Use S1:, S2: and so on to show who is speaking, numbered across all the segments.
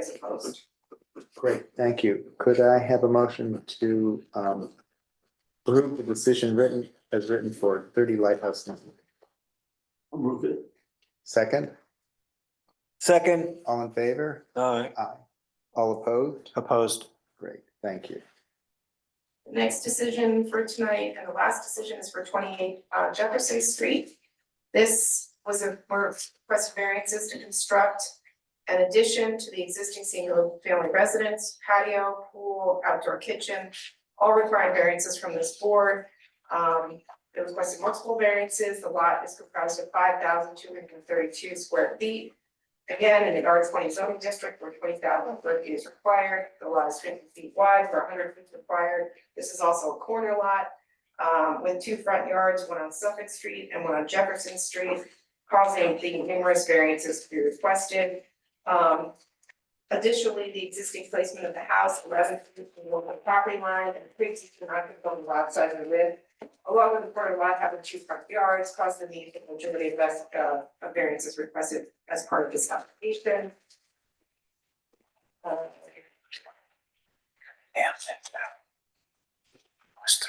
S1: as opposed.
S2: Great, thank you. Could I have a motion to um approve the decision written as written for thirty Lighthouse? Lane?
S3: Move it.
S2: Second,
S4: Second,
S2: all in favor?
S4: aye,
S2: Aye. All opposed?
S4: opposed,
S2: Great, thank you.
S1: The next decision for tonight and the last decision is for twenty-eight uh, Jefferson Street. This was a, were request variances to construct an addition to the existing single family residence, patio, pool, outdoor kitchen, all requiring variances from this board. Um, they requested multiple variances. The lot is comprised of five thousand two hundred and thirty-two square feet. Again, in the R twenty zoning district where twenty thousand square feet is required, the lot is fifty feet wide where hundred feet is required. This is also a corner lot, um, with two front yards, one on Suffolk Street and one on Jefferson Street, causing the numerous variances to be requested. Um, additionally, the existing placement of the house, eleven feet from the local property line and three feet from non-conforming lot size and width, along with the corner lot having two front yards, caused the need for majority of best, uh, of variances requested as part of this application. Uh,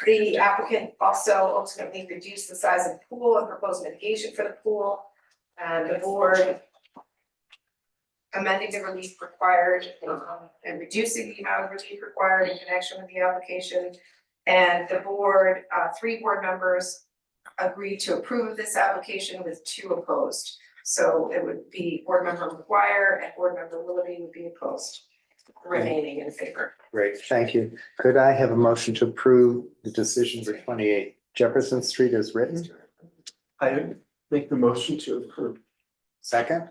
S1: The applicant also ultimately reduced the size of the pool and proposed mitigation for the pool. And the board amending the relief required um, and reducing the amount of relief required in connection with the application. And the board, uh, three board members agreed to approve of this application with two opposed. So it would be board member McGuire and board member Willoughby would be opposed, remaining in favor.
S2: Great, thank you. Could I have a motion to approve the decision for twenty-eight Jefferson Street as written?
S3: I make the motion to approve.
S2: Second?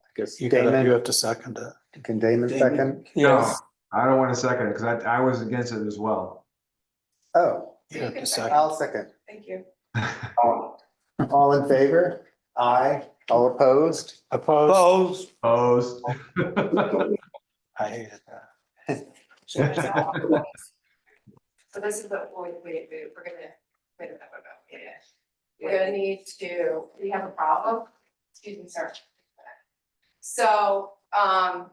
S2: I guess
S4: you gotta, you
S2: Damon,
S4: have to second it.
S2: can Damon
S3: Damon.
S2: second?
S4: Yes,
S5: I don't want to second it because I, I was against it as well.
S2: Oh,
S4: you have to second,
S2: I'll second.
S1: Thank you.
S2: All in favor? Aye. All opposed?
S4: opposed,
S5: Opposed.
S4: I hated that.
S1: So this is the, wait, wait, wait, we're gonna, wait a minute, yeah. We're gonna need to, we have a problem, excuse me, sir. So, um,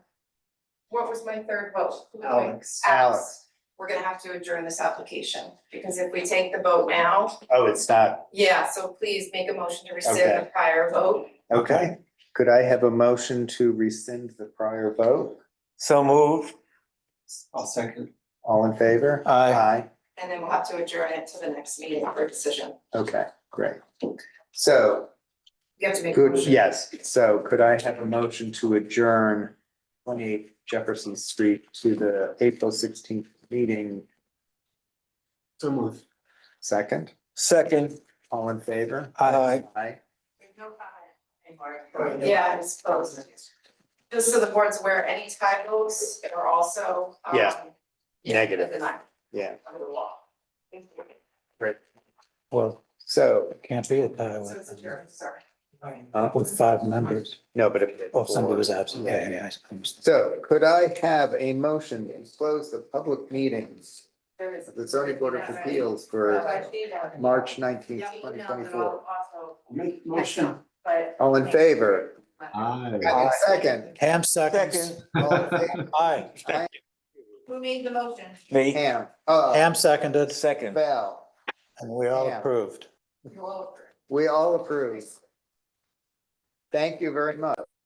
S1: what was my third vote? Who was my-
S2: Alex. Oh, Alex.
S1: We're gonna have to adjourn this application, because if we take the vote now,
S2: Oh, it's not.
S1: yeah, so please make a motion to
S2: Okay.
S1: rescind the prior vote.
S2: Okay. Could I have a motion to rescind the prior vote?
S4: So move,
S3: I'll second.
S2: All in favor?
S4: aye,
S2: Aye.
S1: And then we'll have to adjourn it to the next meeting for decision.
S2: Okay, great. So,
S1: You have to make a
S2: good,
S1: motion.
S2: yes. So could I have a motion to adjourn twenty-eight Jefferson Street to the April sixteenth meeting?
S3: So move.
S2: Second,
S4: second,
S2: all in favor?
S4: aye,
S2: Aye.
S1: There's no comment anymore. Yeah, it's closed. Just so the board's aware, any tie votes are also, um.
S2: Yeah. Negative.
S1: within that-
S2: Yeah.
S1: Under the law. So
S4: well,
S2: So,
S4: can't be it, uh,
S1: it's adjourned, sorry.
S2: uh,
S4: with five members,
S2: no, but if.
S4: oh, somebody was absent, yeah, yeah, I suppose.
S2: So could I have a motion to close the public meetings
S1: There is.
S2: of the zoning board of appeals
S1: So I
S2: for
S1: see that.
S2: March nineteenth,
S1: Yeah, we
S2: twenty
S1: emailed it
S2: twenty-four?
S1: all also,
S3: Make motion.
S1: but-
S2: All in favor?
S5: Aye.
S2: Second.
S4: Ham seconds,
S2: Second. All in favor?
S4: aye,
S1: Who made the motion?
S4: me,
S2: Ham, uh,
S4: Ham seconded, second,
S2: Bell,
S4: and we all
S2: Ham.
S4: approved.
S1: Well,
S2: we all approve. Thank you very much.